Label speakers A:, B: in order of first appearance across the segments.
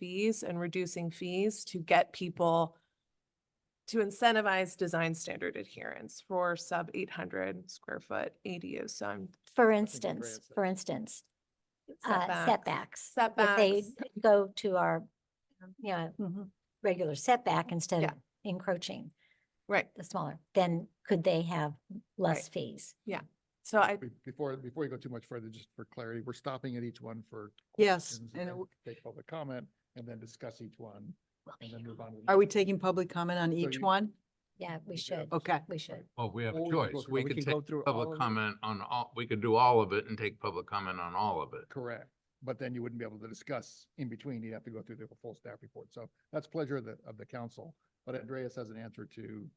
A: fees and reducing fees to get people to incentivize design standard adherence for sub eight hundred square foot ADUs. So I'm
B: For
C: think the
B: instance,
C: grants-
B: for instance, uh,
A: setbacks.
B: setbacks. If they
A: Setbacks.
B: go to our, um, you know,
A: Mhm.
B: regular setback instead of
A: Yeah.
B: encroaching
A: Right.
B: the smaller, then could they have less fees?
A: So I,
C: Be- Before, before you go too much further, just for clarity, we're stopping at each one for.
D: Yes,
C: questions
D: and it
C: then
D: w-
C: Take public comment and then discuss each one
B: Will be
C: and then
B: here.
C: move on. to the
D: Are we
C: next one.
D: taking public comment on each
C: you-
D: one?
B: Yeah, we should,
C: Oh,
D: Okay.
B: we should.
E: Well, we have
C: Or
E: a
C: we could go
E: choice.
C: through-
E: We
C: we
E: could
C: can go
E: take
C: through all of
E: public
C: it.
E: comment on all, we could do all of it and take public comment on all of it.
C: Correct. But then you wouldn't be able to discuss in between. You'd have to go through the full staff report. So that's pleasure of the, of the council. But Andreas has an answer to,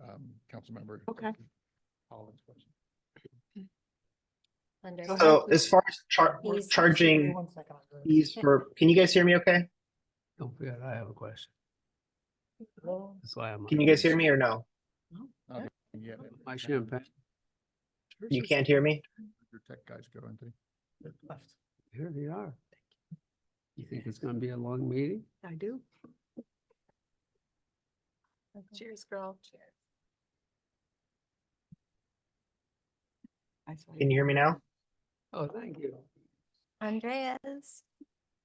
C: um, council member.
D: Okay.
C: Holland's question.
B: Under-
F: So as far as char-
B: Fees.
F: charging fees for, can you guys hear me okay?
G: Don't forget, I have a question. That's why I'm.
F: Can you guys hear me or no?
C: Yeah.
G: My champagne.
F: You can't hear me?
C: Your tech guys go, Anthony.
G: Here they are. You think it's gonna be a long meeting?
D: I do.
A: Cheers, girl. Cheers.
F: Can you hear me now?
G: Oh, thank you.
B: Andreas,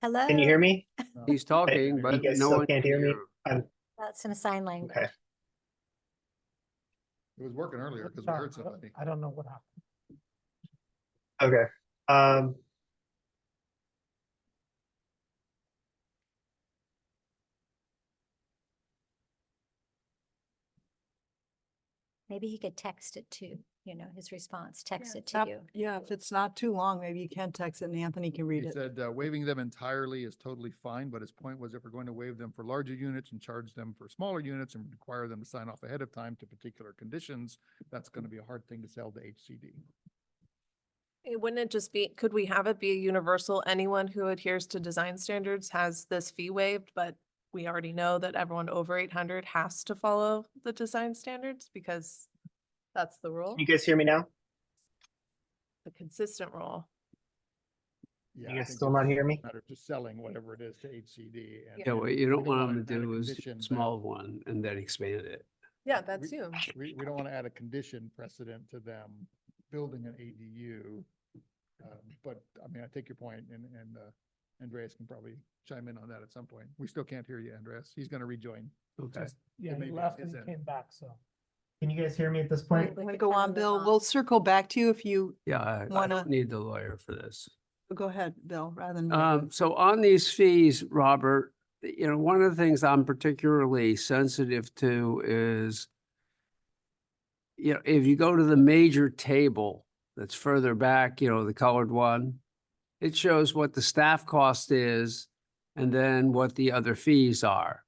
B: hello?
F: Can you hear me?
G: He's talking,
F: you
G: but
F: guys
G: no
F: still
G: one.
F: can't
G: can
F: hear me?
G: him.
B: About some sign language.
F: Okay.
C: It was working earlier because we heard somebody.
F: Okay, um.
B: Maybe he could text it to, you know, his response, text it to
D: Yep,
B: you.
D: Yeah, if it's not too long, maybe you can text it and Anthony can read
C: He
D: it.
C: said uh, waiving them entirely is totally fine, but his point was if we're going to waive them for larger units and charge them for smaller units and require them to sign off ahead of time to particular conditions, that's going to be a hard thing to sell to HCD.
A: It Wouldn't it just be, could we have it be a universal, anyone who adheres to design standards has this fee waived, but we already know that everyone over eight hundred has to follow the design standards because that's the rule,
F: Can you guys hear me now?
A: the consistent rule.
C: Yeah, I
F: You guys
C: think
F: still
C: it's
F: not
C: just
F: hear
C: a
F: me?
C: matter of Just selling whatever it is to HCD. and-
G: Yeah, what you don't
C: We
G: want him
C: wanna
G: to
C: add a
G: do is
C: condition that-
G: small one and then expand it.
A: Yeah,
C: that
A: that's
C: we-
A: you.
C: We, we don't want to add a condition precedent to them building an ADU. um, But I mean, I take your point and, and uh, Andreas can probably chime in on that at some point. We still can't hear you, Andreas. He's going to rejoin.
G: Okay.
C: Yeah, he left and came back.
H: Can you guys hear me at this
B: We-
H: point?
B: we
D: Wanna
B: could
D: Go
B: turn
D: on,
B: it
D: Bill.
B: off.
D: We'll circle back to you if you,
G: Yeah, I- I
D: Wanna-
G: don't need the lawyer for this.
D: go ahead, Bill, rather than.
G: Um, so on these fees, Robert, you know, one of the things I'm particularly sensitive to is, you know, if you go to the major table that's further back, you know, the colored one, it shows what the staff cost is and then what the other fees are.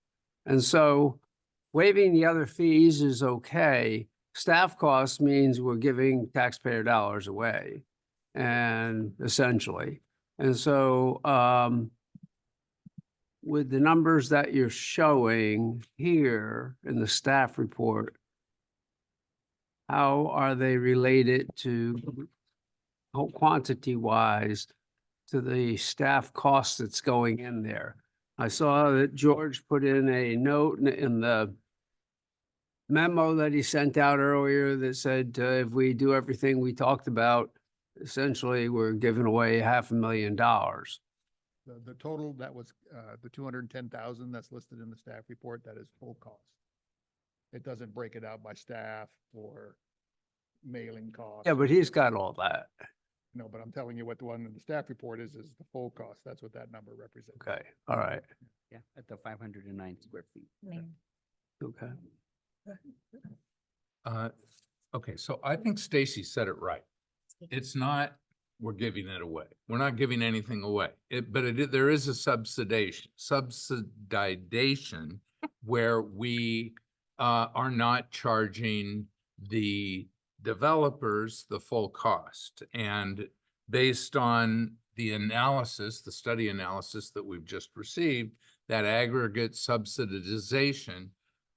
G: And so waiving the other fees is okay. Staff costs means we're giving taxpayer dollars away and essentially. And so, um, with the numbers that you're showing here in the staff report, how are they related to, how quantity-wise, to the staff cost that's going in there? I saw that George put in a note in- in the memo that he sent out earlier that said, uh, if we do everything we talked about, essentially, we're giving away half a million dollars.
C: The, the total, that was uh, the two hundred and ten thousand that's listed in the staff report, that is full cost. It doesn't break it out by staff or mailing cost.
G: Yeah, but he's got all that.
C: No, but I'm telling you what the one in the staff report is, is the full cost. That's what that number represents.
G: Okay, all right,
I: Yeah, at the five hundred and nine square feet.
B: I mean,
G: okay.
E: Uh, Okay, so I think Stacy said it right.
B: speak-
E: It's not, we're giving it away. We're not giving anything away. It, but it, i- there is a subsidization, subsidization where we uh, are not charging the developers the full cost. And based on the analysis, the study analysis that we've just received, that aggregate subsidization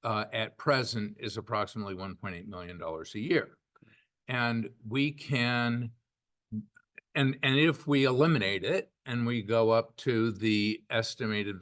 E: uh, at present is approximately one point eight million dollars a year. And we can, and, and if we eliminate it and we go up to the estimated